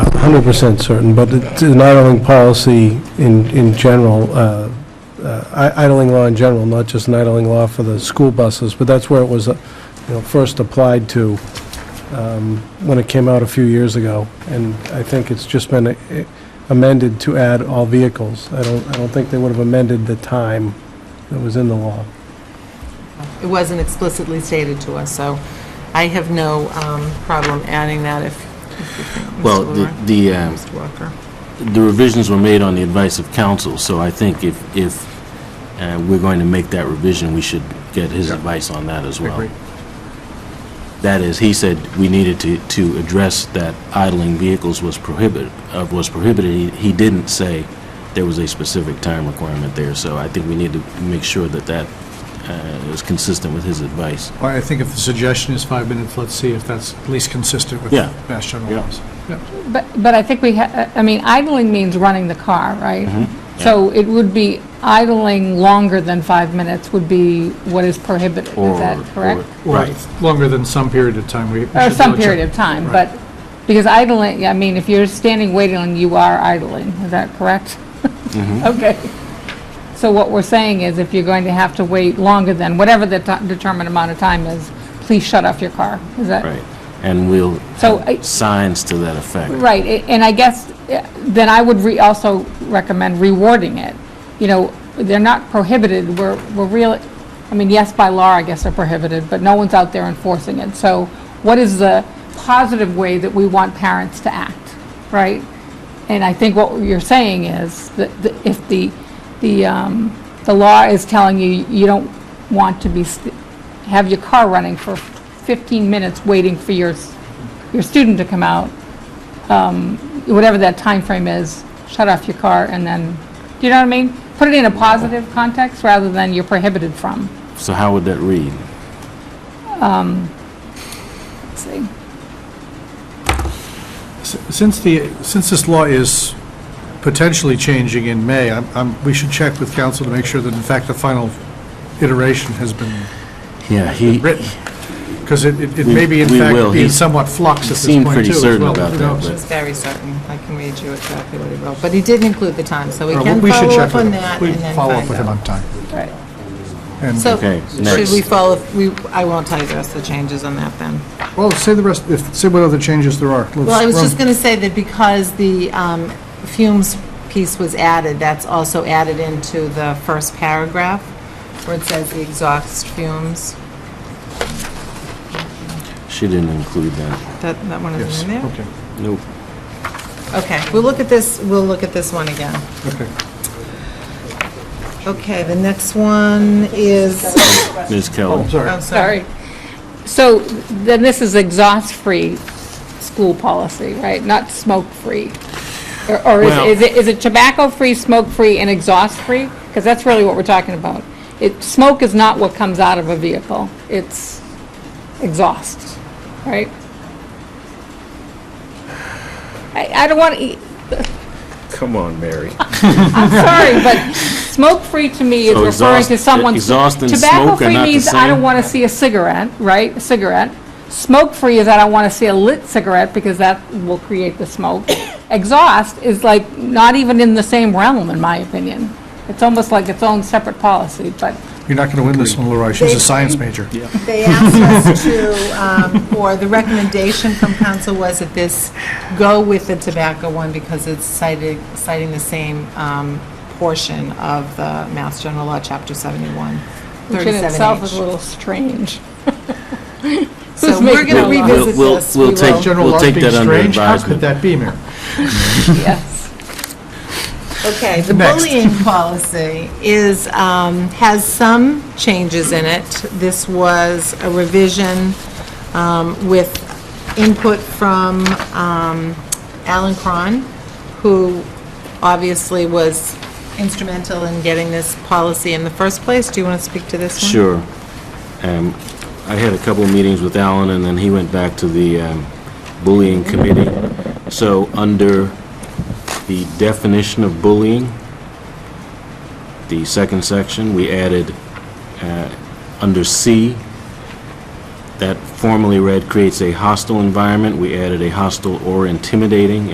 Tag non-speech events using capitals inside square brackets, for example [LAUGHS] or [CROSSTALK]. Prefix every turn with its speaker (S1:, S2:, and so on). S1: hundred percent certain, but it's an idling policy in, in general, uh, uh, i- idling law in general, not just an idling law for the school buses, but that's where it was, uh, you know, first applied to um, when it came out a few years ago, and I think it's just been uh, amended to add all vehicles. I don't, I don't think they would have amended the time that was in the law.
S2: It wasn't explicitly stated to us, so I have no um, problem adding that if, if you think, Mr.
S3: Well, the-
S2: Lawrence,
S3: the, um,
S2: Mr. Walker.
S3: the revisions were made on the advice of counsel, so I think if, if uh, we're going to make that revision, we should get his advice on that as well. That is, he said we needed to, to address that idling vehicles was prohibited, uh, was prohibited. He- He didn't say there was a specific time requirement there, so I think we need to make sure that that uh, is consistent with his advice.
S4: Well, I think if the suggestion is five minutes, let's see if that's at least consistent with
S3: Yeah.
S4: Mass General
S3: Yeah.
S4: laws. Yeah.
S5: But, but I think we, ha- uh, I mean, idling means running the car, right? So it would be idling longer than five minutes would be what is prohibited,
S3: Or-
S5: is that correct?
S3: or-
S4: Or longer than some period of time. we- we
S5: Or
S2: Uh,
S4: should
S5: some
S4: really
S5: period
S4: check.
S5: of time,
S4: Right.
S5: but, because idling, I mean, if you're standing waiting, you are idling, is that correct? [LAUGHS] Okay. So what we're saying is if you're going to have to wait longer than, whatever the ti- determined amount of time is, please shut off your car, is that?
S3: Right. And we'll
S5: So I-
S3: have signs to that effect.
S5: Right, a- and I guess, eh, then I would re, also recommend rewarding it. You know, they're not prohibited, we're, we're really, I mean, yes, by law, I guess they're prohibited, but no one's out there enforcing it. So what is the positive way that we want parents to act, right? And I think what you're saying is that the- if the, the, um, the law is telling you, you don't want to be, st- have your car running for 15 minutes waiting for your, s- your student to come out, whatever that time frame is, shut off your car and then, do you know what I mean? Put it in a positive context rather than you're prohibited from.
S3: So how would that read?
S5: Let's see.
S4: S- Since the, since this law is potentially changing in May, I'm- I'm, we should check with council to make sure that in fact the final iteration has been
S3: Yeah, he,
S4: written. Because it, it it may be in
S3: We- we will.
S4: fact be
S3: He's-
S4: somewhat flux at
S3: he
S4: this
S3: seemed
S4: point too.
S3: pretty
S4: as
S3: certain
S4: well,
S3: about
S4: who
S3: that,
S4: knows? Uh,
S3: but-
S2: It's very certain, I can read you exactly what he wrote, but he did include the time, so we
S4: Uh,
S2: can
S4: We should
S2: follow
S4: check
S2: up
S4: with
S2: on
S4: him.
S2: that
S4: We
S2: and then
S4: follow up
S2: find
S4: with him
S2: out.
S4: on time.
S5: Right.
S4: And-
S2: So,
S3: Okay,
S2: should
S3: next.
S2: we follow, we, I won't tell you the rest of the changes on that then.
S4: Well, say the rest, if, say what other changes there are. Let's
S2: Well, I was
S4: run-
S2: just going to say that because the um, fumes piece was added, that's also added into the first paragraph, where it says the exhaust fumes.
S3: she didn't include that.
S2: That, that one
S4: Yes,
S2: is in there?
S4: okay,
S3: Nope.
S2: Okay, we'll look at this, we'll look at this one again.
S4: okay.
S2: Okay, the next one is,
S3: Ms. Keller.
S4: Oh, sorry.
S2: oh, sorry.
S5: Sorry. So then this is exhaust-free school policy, right? Not smoke-free? Or or
S3: Well-
S5: is- is it, is it tobacco-free, smoke-free, and exhaust-free? Because that's really what we're talking about. It, smoke is not what comes out of a vehicle. It's exhaust, right? I, I don't want to,
S3: Come on, Mary. [LAUGHS]
S5: I'm sorry, but smoke-free to me is
S3: So
S5: referring to
S3: exhaust-
S5: someone's...
S3: exhaust and smoke are
S5: Tobacco-free
S3: not the
S5: means I
S3: same?
S5: don't want to see a cigarette, right, a cigarette. Smoke-free is I don't want to see a lit cigarette because that will create the smoke. Exhaust is like not even in the same realm, in my opinion. It's almost like its own separate policy, but
S4: You're not going to win this one, Leroy. She's a science major.
S2: They asked us to, um, or the recommendation from council was that this go with the tobacco one because it's cited, citing the same um, portion of the Mass General Law, Chapter 71,
S5: which in itself is a
S2: 37H.
S5: little strange. [LAUGHS]
S2: So
S5: Who's
S2: we're
S5: making
S2: going to
S5: that law?
S2: revisit
S3: [LAUGHS] We'll- we'll-
S2: this.
S3: we'll
S2: We
S3: take-
S2: will.
S4: General
S3: We'll
S4: laws
S3: take
S4: being
S3: that under
S4: strange, how could
S3: advisement.
S4: that be, Mayor?
S5: Yes.
S2: Okay, the
S4: Next.
S2: bullying policy is, um, has some changes in it. This was a revision um, with input from um, Alan Cron, who obviously was instrumental in getting this policy in the first place. Do you want to speak to this one?
S3: Sure. Um, I had a couple of meetings with Alan, and then he went back to the um, bullying committee. So under the definition of bullying, the second section, we added, uh, under C, that formally read creates a hostile environment, we added a hostile or intimidating